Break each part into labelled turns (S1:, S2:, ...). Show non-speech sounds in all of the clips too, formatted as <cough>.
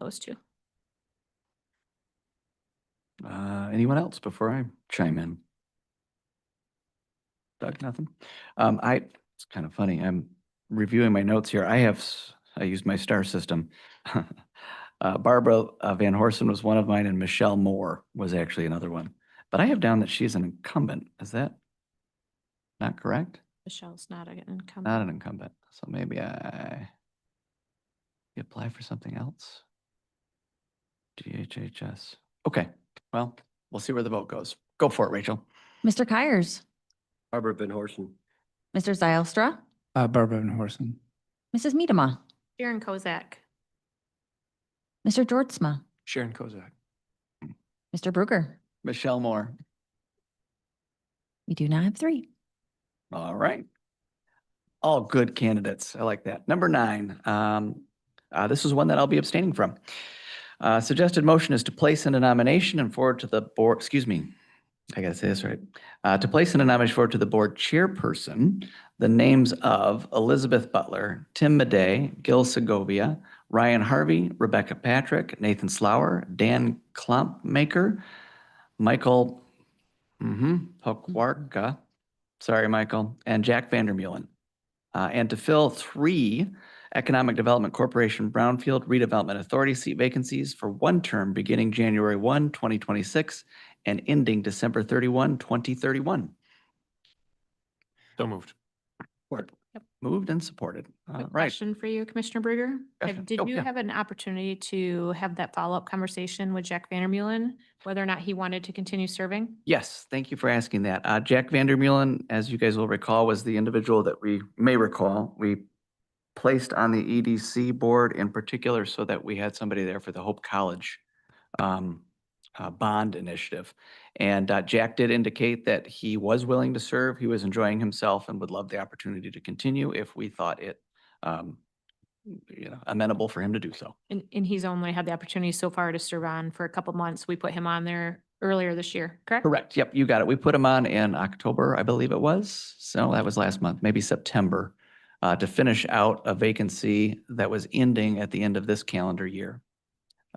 S1: opposed to.
S2: Uh, anyone else before I chime in? Doug, nothing? Um, I, it's kind of funny. I'm reviewing my notes here. I have, s- I used my star system. <laughs> Uh, Barbara uh, Van Horsen was one of mine and Michelle Moore was actually another one. But I have down that she's an incumbent. Is that not correct?
S1: Michelle's not an incumbent.
S2: Not an incumbent. So maybe I we apply for something else. GHHS. Okay, well, we'll see where the vote goes. Go for it, Rachel.
S3: Mr. Keiers,
S4: Barbara Van Horsen.
S3: Mr. Zylstra,
S5: Uh, Barbara Van Horsen.
S3: Mrs. Medema,
S1: Sharon Kozak,
S3: Mr. Georgezma,
S2: Sharon Kozak.
S3: Mr. Bruegger.
S2: Michelle Moore.
S3: We do now have three.
S2: All right. All good candidates. I like that. Number nine, um, uh, this is one that I'll be abstaining from. Uh, suggested motion is to place in a nomination and forward to the board, excuse me, I gotta say this right. Uh, to place in a nomination forward to the board chairperson, the names of Elizabeth Butler, Tim Madey, Gil Segovia, Ryan Harvey, Rebecca Patrick, Nathan Slower, Dan Klumpmaker, Michael, mm-hmm, Pokwarka, Sorry, Michael, and Jack Vandermeulen. Uh, and to fill three Economic Development Corporation Brownfield Redevelopment Authority seat vacancies for one term beginning January 1, 2026 and ending December 31, 2031.
S6: So moved.
S2: Moved and supported. All
S1: quick
S2: right.
S1: question for you, Commissioner Bruegger. Have-
S2: Question.
S1: Did
S2: Oh,
S1: you
S2: yeah.
S1: have an opportunity to have that follow-up conversation with Jack Vandermeulen, whether or not he wanted to continue serving?
S2: Yes, thank you for asking that. Uh, Jack Vandermeulen, as you guys will recall, was the individual that we may recall, we placed on the EDC board in particular so that we had somebody there for the Hope College um, uh, bond initiative. And uh, Jack did indicate that he was willing to serve, he was enjoying himself and would love the opportunity to continue if we thought it, um, you know, amenable for him to do so.
S1: And, and he's only had the opportunity so far to serve on for a couple months. We put him on there earlier this year, correct?
S2: Correct. Yep, you got it. We put him on in October, I believe it was. So that was last month, maybe September, uh, to finish out a vacancy that was ending at the end of this calendar year.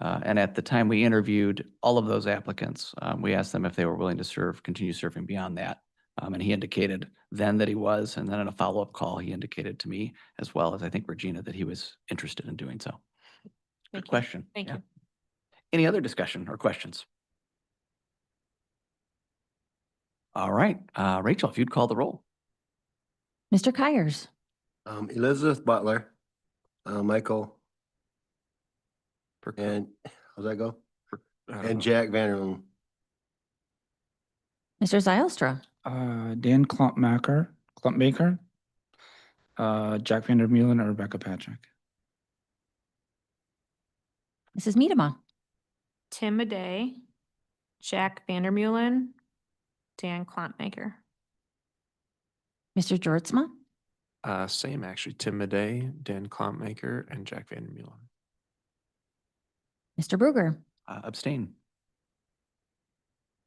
S2: Uh, and at the time we interviewed all of those applicants, um, we asked them if they were willing to serve, continue serving beyond that. Um, and he indicated then that he was, and then in a follow-up call, he indicated to me, as well as I think Regina, that he was interested in doing so.
S1: Thank
S2: Good
S1: you.
S2: question.
S1: Thank
S2: Yeah.
S1: you.
S2: Any other discussion or questions? All right, uh, Rachel, if you'd call the roll.
S3: Mr. Keiers,
S4: Um, Elizabeth Butler, uh, Michael
S6: Perk-
S4: and, how's that go?
S6: I don't
S4: And
S6: know.
S4: Jack Vanderloon.
S3: Mr. Zylstra,
S5: Uh, Dan Klumpmaker, Klumpmaker. Uh, Jack Vandermeulen or Rebecca Patrick.
S3: Mrs. Medema,
S1: Tim Madey, Jack Vandermeulen, Dan Klantmaker.
S3: Mr. Georgezma,
S6: Uh, same actually, Tim Madey, Dan Klopmaker, and Jack Van Meulen.
S3: Mr. Bruegger.
S2: Uh, abstain.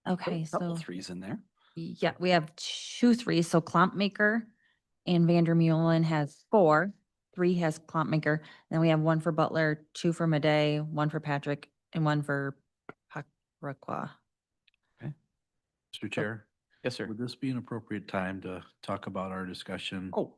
S2: Oh,
S3: Okay,
S2: Couple
S3: so,
S2: threes in there.
S3: yeah, we have two, three, so Klumpmaker and Vandermeulen has four, three has Klumpmaker. Then we have one for Butler, two for Madey, one for Patrick, and one for Pakrakwa.
S7: Mr. Chair,
S2: Yes, sir.
S7: would this be an appropriate time to talk about our discussion?
S2: Oh,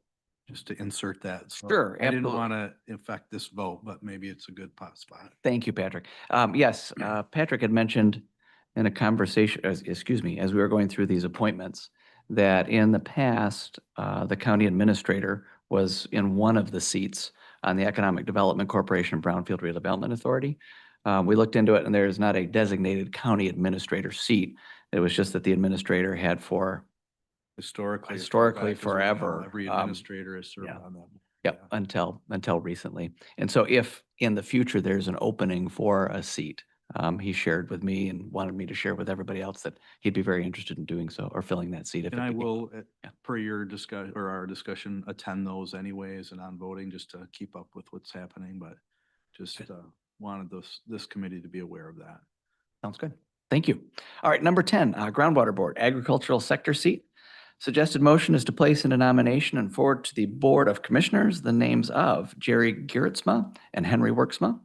S7: Just to insert that. So
S2: Sure,
S7: I didn't
S2: absolutely.
S7: want to affect this vote, but maybe it's a good pot spot.
S2: thank you, Patrick. Um, yes, uh, Patrick had mentioned in a conversation, as- excuse me, as we were going through these appointments, that in the past, uh, the county administrator was in one of the seats on the Economic Development Corporation Brownfield Redevelopment Authority. Uh, we looked into it and there is not a designated county administrator seat. It was just that the administrator had four
S7: Historically. as far
S2: Historically,
S7: back as we know,
S2: forever,
S7: Every
S2: um,
S7: administrator has served
S2: yeah.
S7: on that.
S2: Yep, until, until recently. And so if in the future there's an opening for a seat, um, he shared with me and wanted me to share with everybody else that he'd be very interested in doing so or filling that seat. if
S7: And
S2: it
S7: I
S2: became-
S7: will, uh,
S2: Yeah.
S7: per your discuss, or our discussion, attend those anyways and on voting just to keep up with what's happening, but just uh, wanted this, this committee to be aware of that.
S2: Sounds good. Thank you. All right, number ten, uh, groundwater board, agricultural sector seat. Suggested motion is to place in a nomination and forward to the Board of Commissioners the names of Jerry Garretzma and Henry Worksma,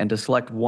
S2: and to select one